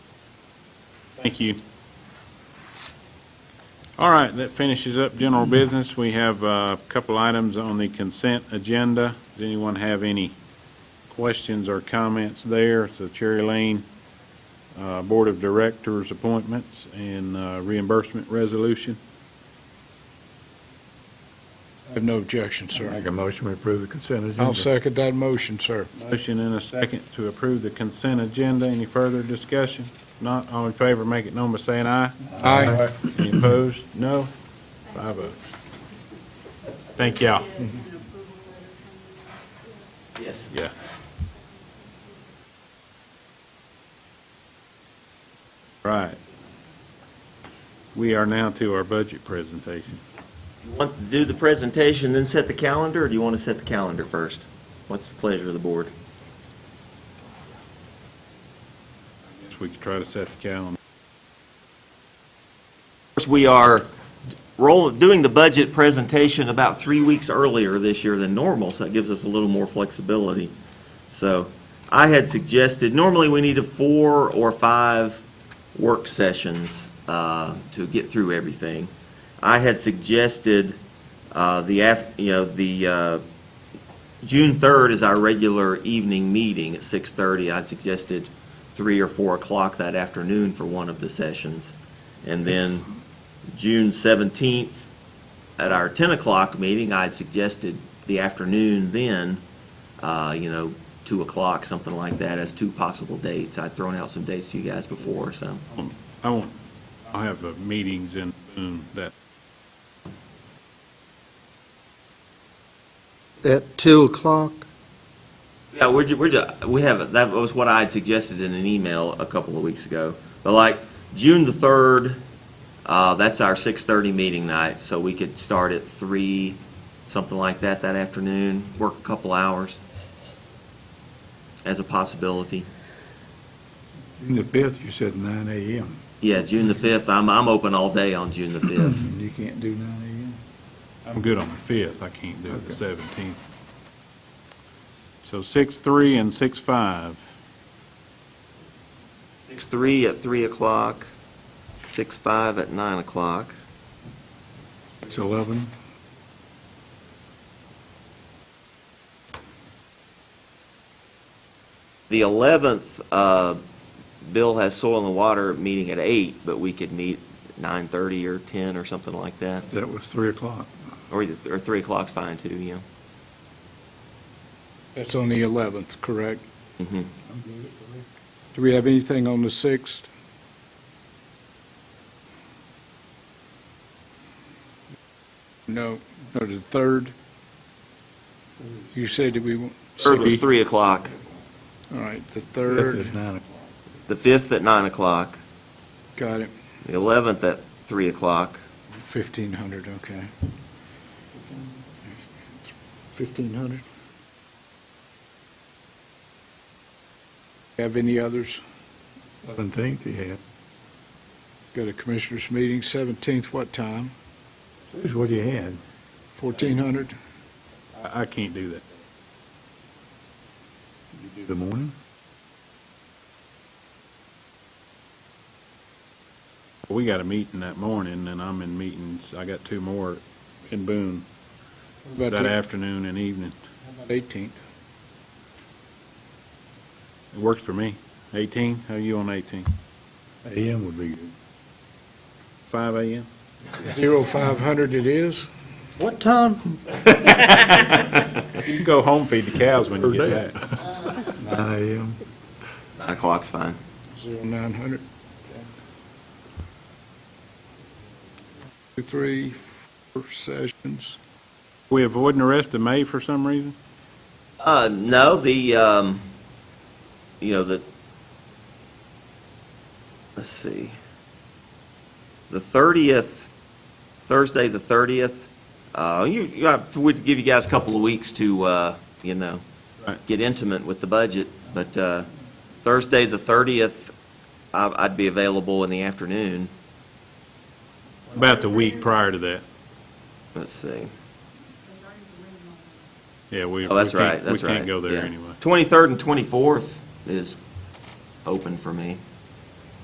Thank you. All right, that finishes up general business. We have uh, a couple items on the consent agenda. Does anyone have any questions or comments there? It's the Cherry Lane uh, Board of Directors appointments and uh, reimbursement resolution. I have no objection, sir. Make a motion to approve the consent agenda. I'll second that motion, sir. Motion and a second to approve the consent agenda. Any further discussion? Not all in favor, make it known by saying aye. Aye. Any opposed? No? Five oh. Thank y'all. Yes. Yeah. Right. We are now to our budget presentation. You want to do the presentation, then set the calendar, or do you want to set the calendar first? What's the pleasure of the board? Guess we could try to set the calendar. First, we are roll, doing the budget presentation about three weeks earlier this year than normal, so that gives us a little more flexibility. So I had suggested, normally we need a four or five work sessions uh, to get through everything. I had suggested uh, the, af- you know, the, uh, June 3rd is our regular evening meeting at 6:30. I'd suggested 3 or 4 o'clock that afternoon for one of the sessions. And then June 17th, at our 10 o'clock meeting, I'd suggested the afternoon then, uh, you know, 2 o'clock, something like that, as two possible dates. I'd thrown out some dates to you guys before, so. I won't, I'll have the meetings in Boone that, At 2 o'clock? Yeah, we're, ju- we're, ju- we have, that was what I had suggested in an email a couple of weeks ago. But like, June the 3rd, uh, that's our 6:30 meeting night, so we could start at 3, something like that, that afternoon, work a couple hours as a possibility. June the fifth, you said nine AM. Yeah, June the 5th, I'm, I'm open all day on June the 5th. You can't do nine AM? I'm good on the fifth, I can't do the Okay. seventeenth. So six, three, and six, five. 6:03 at 3 o'clock, 6:05 at 9 o'clock. Six eleven? The eleventh, uh, Bill has soil and water meeting at eight, but we could meet nine thirty or ten or something like that. That was three o'clock. Or either, or three o'clock's fine too, yeah. That's on the 11th, correct? Mhm. Do we have anything on the 6th? No, no, the 3rd? You said that we, want- Third was three o'clock, all right, the Fifth 3rd, is nine o'clock. the fifth at nine o'clock, got it, the eleventh at three o'clock, 1500, okay. 1500? Have any others? Seventeenth you had. Got a commissioners' meeting, 17th, what time? Here's what you had. 1400? I, I can't do that. You do The morning? We got a meeting that morning, and I'm in meetings, I got two more in Boone What that About the- afternoon and evening. how about 18th. It works for me. 18, how you on 18? AM would be good. 5 a.m.? 0500 it is? What time? You can go home, feed the cows when you get back. Nine AM. nine o'clock's fine. 0900. Two, three, four sessions. We avoiding the rest of May for some reason? Uh, no, the, um, you know, the, let's see. The thirtieth, Thursday, the thirtieth, uh, you, you, I would give you guys a couple of weeks to, uh, you know, Right. get intimate with the budget, but, uh, Thursday, the thirtieth, I, I'd be available in the afternoon. About the week prior to that. Let's see. Yeah, we, Oh, we that's right, can't, we that's right. can't go there anyway. Twenty-third and twenty-fourth is open for me.